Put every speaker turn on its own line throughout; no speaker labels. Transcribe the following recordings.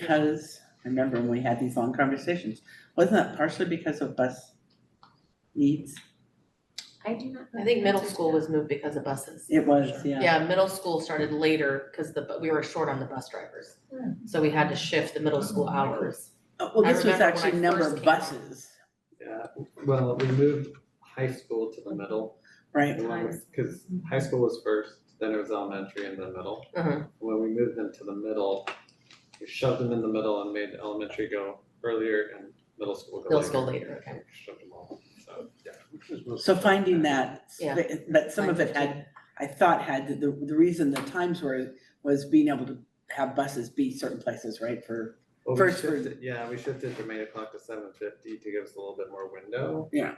Because, I remember when we had these long conversations, wasn't that partially because of bus needs?
I do not.
I think middle school was moved because of buses.
It was, yeah.
Yeah, middle school started later because the, bu- we were short on the bus drivers.
Hmm.
So we had to shift the middle school hours.
Oh, Well,
I
this was
remember when I
actually number
first
of
came on.
buses,
Yeah, well, we moved high school to the middle,
right?
and when we, cause high school was first, then it was elementary and then middle.
Uh-huh.
When we moved them to the middle, we shoved them in the middle and made elementary go earlier and middle school go later.
Middle school later, okay.
Shoved them all, so, yeah.
So finding that,
Yeah.
sp- that some of it had, I thought had, the, the reason the times were, was being able to have buses be certain places, right, for,
Well, we
First room.
shifted, yeah, we shifted from eight o'clock to seven fifty to give us a little bit more window.
Yeah.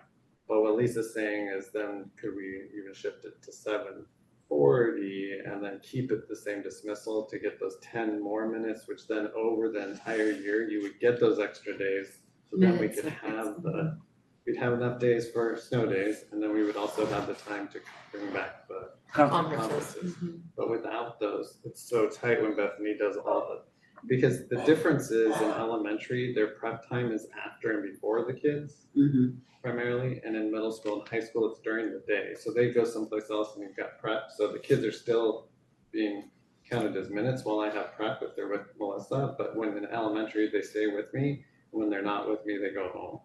But what Lisa's saying is then could we even shift it to seven forty and then keep it the same dismissal to get those ten more minutes, which then over the entire year, you would get those extra days. So then we
Minutes,
could
okay.
have the, we'd have enough days for snow days, and then we would also have the time to bring back the
Um,
conference.
Conferences.
conferences.
mm-hmm,
But without those, it's so tight when Bethany does all the, because the difference is in elementary, their prep time is after and before the kids
Mhm.
primarily, and in middle school and high school, it's during the day. So they go someplace else and they've got prep, so the kids are still being counted as minutes while I have prep if they're with Melissa, but when in elementary, they stay with me. When they're not with me, they go home.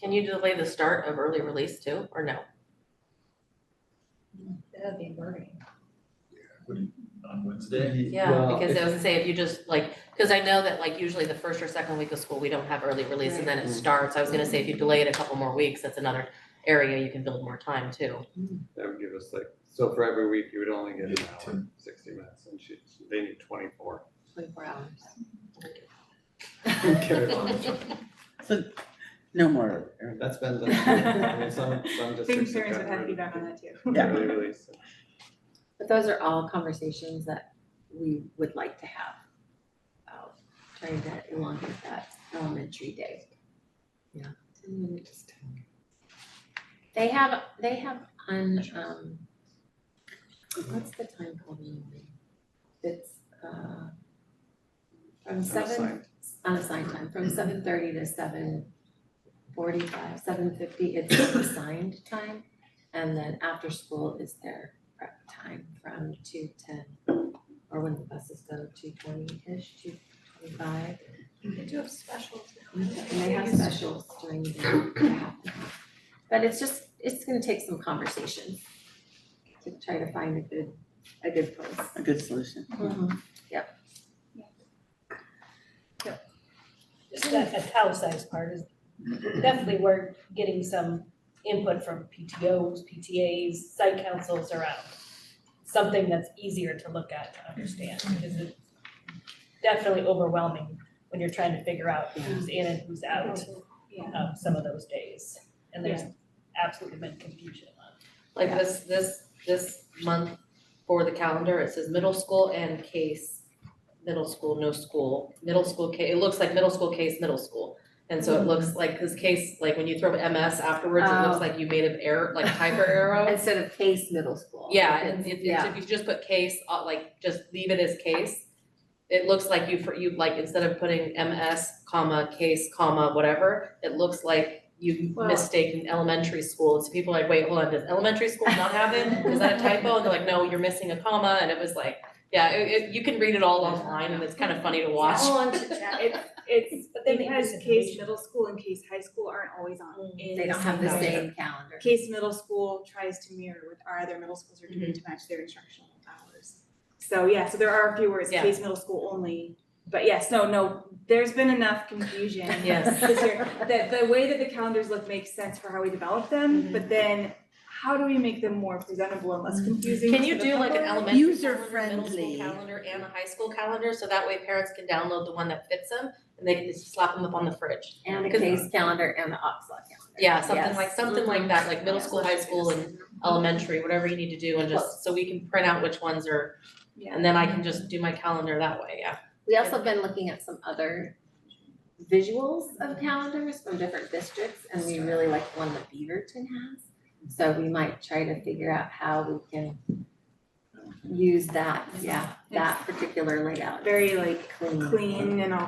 Can you delay the start of early release too, or no?
That'd be burning.
on Wednesday.
Yeah,
Well,
because
if-
I was gonna say, if you just like, because I know that like usually the first or second week of school, we don't have early release and then it
Right.
starts. I was gonna say, if you delay it a couple more weeks, that's another area you can build more time too.
That would give us like, so for every week, you would only get an
Yeah,
hour, sixty minutes, and she, they need twenty-four.
Twenty-four hours.
Okay,
Um,
well,
So, no more, or-
That's been, that's been, I mean, some, some districts have
parents would have
gotten rid
feedback on
of
that too.
yeah,
early release.
But those are all conversations that we would like to have about trying to elongate that elementary day.
Yeah.
Ten minutes. They have, they have on, um, what's the time called anyway? It's, uh, from seven
Unassigned.
unassigned time, from seven thirty to seven forty-five, seven fifty, it's their assigned time. And then after school is their prep time from two ten, or when the buses go, two twenty-ish, two twenty-five.
They do have specials now.
And they have specials during the day. But it's just, it's gonna take some conversation to try to find a good, a good place.
a good solution.
just that italicized part is definitely worth getting some input from PTOs, PTAs, site councils around. Something that's easier to look at to understand, because it's definitely overwhelming when you're trying to figure out who's in and who's out
Yeah.
of some of those days. And there's absolutely been confusion on
Like this, this, this month for the calendar, it says middle school and case, middle school, no school, middle school case, it looks like middle school case, middle school. And so it looks like, cause case, like when you throw MS afterwards, it
Oh.
looks like you made an error, like typer arrow.
Instead of case middle school.
Yeah, and if,
Yeah.
if you just put case, uh, like, just leave it as case, it looks like you, for, you, like, instead of putting MS, comma, case, comma, whatever, it looks like you
Well-
mistaken elementary school, and so people are like, wait, hold on, does elementary school not have it? Is that a typo? And they're like, no, you're missing a comma, and it was like, yeah, it, it, you can read it all online, and it's kind of funny to watch.
All on
It's, it's
But then it
because
is
case
information.
middle school and case high school aren't always on in
They don't have the
calendar.
same calendar.
Case middle school tries to mirror what our other middle schools are doing to match their instructional hours. So yeah, so there are a few words,
Yeah.
case middle school only, but yes, no, no, there's been enough confusion.
Yes.
this year, that the way that the calendars look makes sense for how we develop them, but then how do we make them more presentable and less confusing
Can
to
you
the
do like an
public?
elementary calendar, middle
User-friendly.
school calendar, and a high school calendar, so that way parents can download the one that fits them, and they can just slap them up on the fridge?
And a
Because-
case calendar and the Oxlaw calendar.
Yeah, something
Yes. Mm-hmm.
like, something like that, like middle school, high school and elementary, whatever you need to do and just, so we can print out which ones are,
Yeah,
and then I can just do my calendar that way, yeah.
We also have been looking at some other visuals of calendars from different districts, and we really like the one that Beaverton has. So we might try to figure out how we can use that, yeah,
Yes.
that particular layout.
very like
Clean. Mm.
clean and all